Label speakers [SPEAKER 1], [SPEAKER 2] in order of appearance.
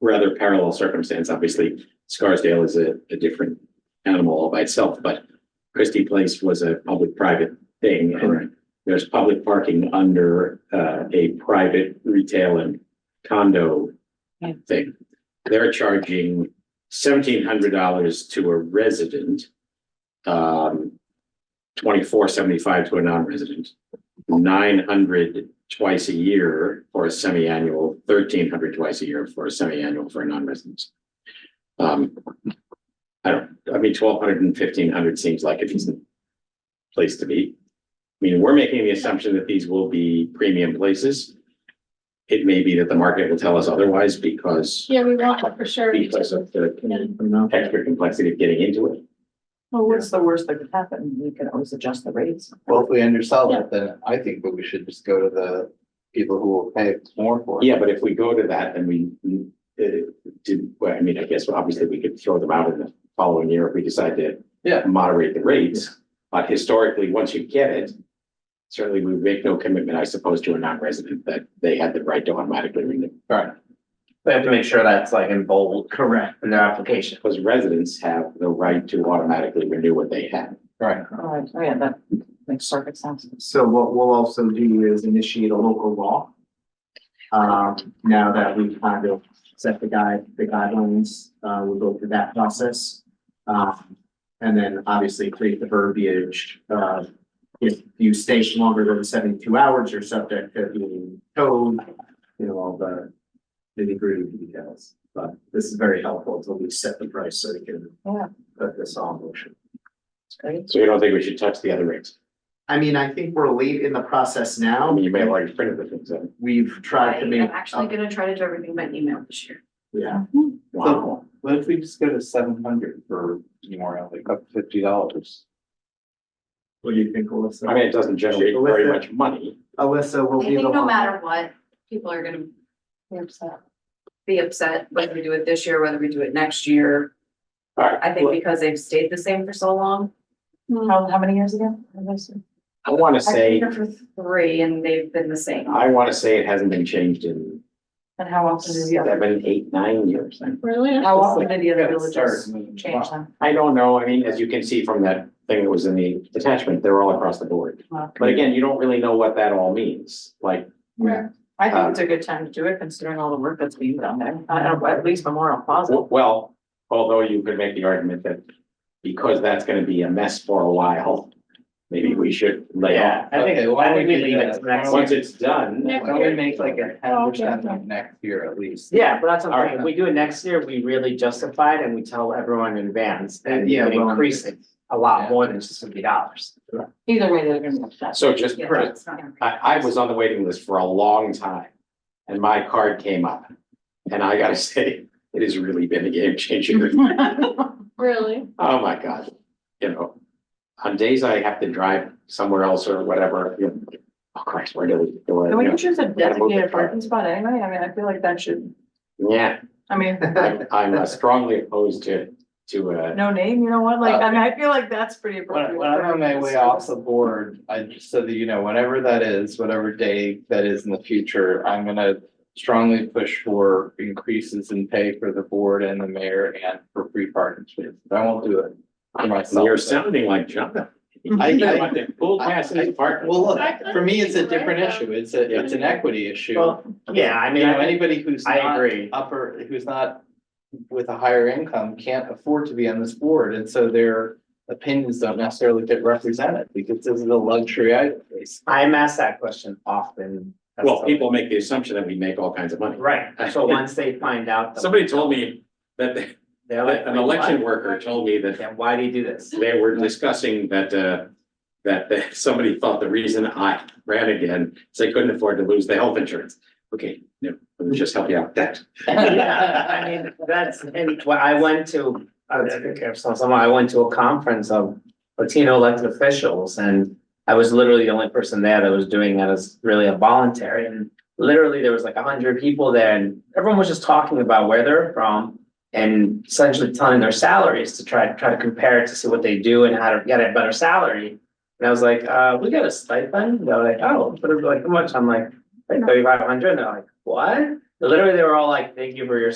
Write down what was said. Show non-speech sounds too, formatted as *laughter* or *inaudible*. [SPEAKER 1] rather parallel circumstance, obviously. Scarsdale is a, a different animal all by itself, but Christie Place was a public-private thing. and There's public parking under, uh, a private retail and condo
[SPEAKER 2] Yeah.
[SPEAKER 1] thing. They're charging seventeen hundred dollars to a resident. Um, twenty-four seventy-five to a non-resident nine hundred twice a year for a semi-annual, thirteen hundred twice a year for a semi-annual for a non-resident. Um, I don't, I mean, twelve hundred and fifteen hundred seems like a decent place to be. I mean, we're making the assumption that these will be premium places. It may be that the market will tell us otherwise because,
[SPEAKER 2] Yeah, we want it for sure.
[SPEAKER 1] because of the
[SPEAKER 3] Well,
[SPEAKER 1] extra complexity of getting into it.
[SPEAKER 3] what's
[SPEAKER 4] the worst that could happen? We can always adjust the rates.
[SPEAKER 3] if we undersell it, then I think that we should just go to the people who will pay more for it.
[SPEAKER 1] Yeah, but if we go to that, then we, we, uh, did, well, I mean, I guess obviously we could throw them out in the following year if we decide to.
[SPEAKER 3] Yeah.
[SPEAKER 1] Moderate the rates, but historically, once you get it, certainly we make no commitment, I suppose, to a non-resident that they had the right to automatically renew.
[SPEAKER 3] Right.
[SPEAKER 5] They have to make sure that's like in bold. Correct. In their application.
[SPEAKER 1] Because residents have the right to automatically renew what they have.
[SPEAKER 3] Right.
[SPEAKER 4] Oh, yeah, that makes perfect sense.
[SPEAKER 6] So what we'll also do is initiate a local law. Um, now that we kind of set the guide, the guidelines, uh, we'll go through that process. Um, and then obviously create the verbiage, uh, if you stay longer than seventy-two hours, you're subject to being towed. You know, all the nitty gritty details, but this is very helpful until we set the price so we can
[SPEAKER 4] Yeah.
[SPEAKER 6] put this on motion.
[SPEAKER 4] It's great.
[SPEAKER 1] So you don't think we should touch the other rates?
[SPEAKER 6] I mean, I think we're late in the process
[SPEAKER 1] I
[SPEAKER 6] now.
[SPEAKER 1] mean, you may have already printed the things out.
[SPEAKER 6] We've tried to
[SPEAKER 7] I'm
[SPEAKER 6] make.
[SPEAKER 7] actually gonna try to do everything by email this year.
[SPEAKER 6] Yeah,
[SPEAKER 1] Wow.
[SPEAKER 3] What if we just go to seven hundred for Memorial, like up fifty dollars?
[SPEAKER 6] what do you think,
[SPEAKER 1] I mean,
[SPEAKER 6] Alyssa?
[SPEAKER 1] it doesn't generate very much money.
[SPEAKER 6] Alyssa will
[SPEAKER 7] I
[SPEAKER 6] be
[SPEAKER 7] think
[SPEAKER 6] the
[SPEAKER 7] no
[SPEAKER 6] one.
[SPEAKER 7] matter what, people are gonna
[SPEAKER 4] Here's that.
[SPEAKER 7] be upset whether we do it this year, whether we do it next year.
[SPEAKER 1] All right.
[SPEAKER 7] I think because they've stayed the same for so long.
[SPEAKER 4] How, how many years ago?
[SPEAKER 1] I want to
[SPEAKER 7] I've
[SPEAKER 1] say,
[SPEAKER 7] been here for three and they've been the same.
[SPEAKER 1] I want to say it hasn't been changed in
[SPEAKER 4] And how often do the other,
[SPEAKER 1] seven, eight, nine years. I-
[SPEAKER 2] Really?
[SPEAKER 4] how often do the other
[SPEAKER 3] Yeah, start
[SPEAKER 4] villages
[SPEAKER 3] moving.
[SPEAKER 4] change them?
[SPEAKER 1] I don't know. I mean, as you can see from that thing that was in the attachment, they're all across the board.
[SPEAKER 4] Wow.
[SPEAKER 1] But again, you don't really know what that all means. Like,
[SPEAKER 4] Yeah. I think
[SPEAKER 1] um,
[SPEAKER 4] it's a good time to do it considering all the work that's being done there, I don't know, at least Memorial Plaza.
[SPEAKER 1] w- well, although you could make the argument that because that's going to be a mess for a while, maybe we should lay off.
[SPEAKER 5] I think,
[SPEAKER 3] Okay, why
[SPEAKER 5] I
[SPEAKER 3] don't
[SPEAKER 5] think we
[SPEAKER 3] do
[SPEAKER 5] leave
[SPEAKER 3] that?
[SPEAKER 5] it to next
[SPEAKER 1] Once
[SPEAKER 5] year.
[SPEAKER 1] it's done,
[SPEAKER 2] Yeah.
[SPEAKER 3] Why don't we make like a
[SPEAKER 2] Oh,
[SPEAKER 3] ten
[SPEAKER 2] okay, okay.
[SPEAKER 3] percent next year at least?
[SPEAKER 5] Yeah, but that's what
[SPEAKER 1] All
[SPEAKER 5] I'm
[SPEAKER 1] right.
[SPEAKER 5] saying. If we do it next year, we really justify it and we tell everyone in advance and we
[SPEAKER 6] Yeah, well-
[SPEAKER 5] increase it a
[SPEAKER 3] Yeah.
[SPEAKER 5] lot more than just fifty dollars.
[SPEAKER 4] Either way, they're gonna be upset.
[SPEAKER 1] so
[SPEAKER 4] *laughs*
[SPEAKER 1] just,
[SPEAKER 7] Yeah,
[SPEAKER 1] just
[SPEAKER 7] it's not gonna-
[SPEAKER 1] I, I was on the waiting list for a long time and my card came up. And I gotta *laughs* say, it has really been a game changer.
[SPEAKER 2] Really?
[SPEAKER 1] Oh, my God. You know, on days I have to drive somewhere else or whatever, you know, oh Christ, where do we go?
[SPEAKER 4] Can
[SPEAKER 1] You
[SPEAKER 4] we
[SPEAKER 1] know,
[SPEAKER 4] choose a designated
[SPEAKER 1] car.
[SPEAKER 4] parking spot anyway? I mean, I feel like that should,
[SPEAKER 1] Yeah,
[SPEAKER 4] I
[SPEAKER 3] *laughs*
[SPEAKER 4] mean,
[SPEAKER 1] I'm, I'm uh, strongly opposed to, to, uh,
[SPEAKER 4] no name, you know what, like, I mean, I feel like that's pretty appropriate.
[SPEAKER 3] When, when I'm on my way off the board, I, just so that you know, whenever that is, whatever day that is in the future, I'm gonna strongly push for increases in pay for the board and the mayor and for free parking spaces. I won't do it for myself.
[SPEAKER 1] you're sounding like John.
[SPEAKER 3] I- I-
[SPEAKER 1] want to Full pass in the park.
[SPEAKER 3] Well, look, for me, it's a different issue. It's a, it's an equity issue.
[SPEAKER 5] Well, yeah, I
[SPEAKER 3] You
[SPEAKER 5] mean,
[SPEAKER 3] know,
[SPEAKER 5] I,
[SPEAKER 3] anybody who's
[SPEAKER 5] I
[SPEAKER 3] not
[SPEAKER 5] agree.
[SPEAKER 3] upper, who's not with a higher income can't afford to be on this board, and so their opinions don't necessarily get represented because this is a luxury item.
[SPEAKER 5] I'm asked that question often. That's
[SPEAKER 1] Well,
[SPEAKER 5] so-
[SPEAKER 1] people make the assumption that we make all kinds of money.
[SPEAKER 5] Right, so once they find out.
[SPEAKER 1] Somebody told me that they-
[SPEAKER 5] they're like,
[SPEAKER 1] that an
[SPEAKER 5] "Wait, what?
[SPEAKER 1] election worker told me that
[SPEAKER 5] Then why do you do
[SPEAKER 1] *laughs*
[SPEAKER 5] this? *laughs*
[SPEAKER 1] they were discussing that, uh, that, that somebody thought the reason I ran again is they couldn't afford to lose the health insurance. Okay, no, let me just help you out with that.
[SPEAKER 5] *laughs* Yeah, I mean, that's, and when I went to, I was thinking of some- someone, I went to a conference of Latino elected officials and I was literally the only person there that was doing that as really a voluntary and literally there was like a hundred people there and everyone was just talking about where they're from and essentially telling their salaries to try, try to compare it to see what they do and how to get a better salary. And I was like, uh, we got a stipend? They're like, oh, but it was like, how much? I'm like, like thirty-five hundred? And they're like, what? Literally, they were all like, thank you for your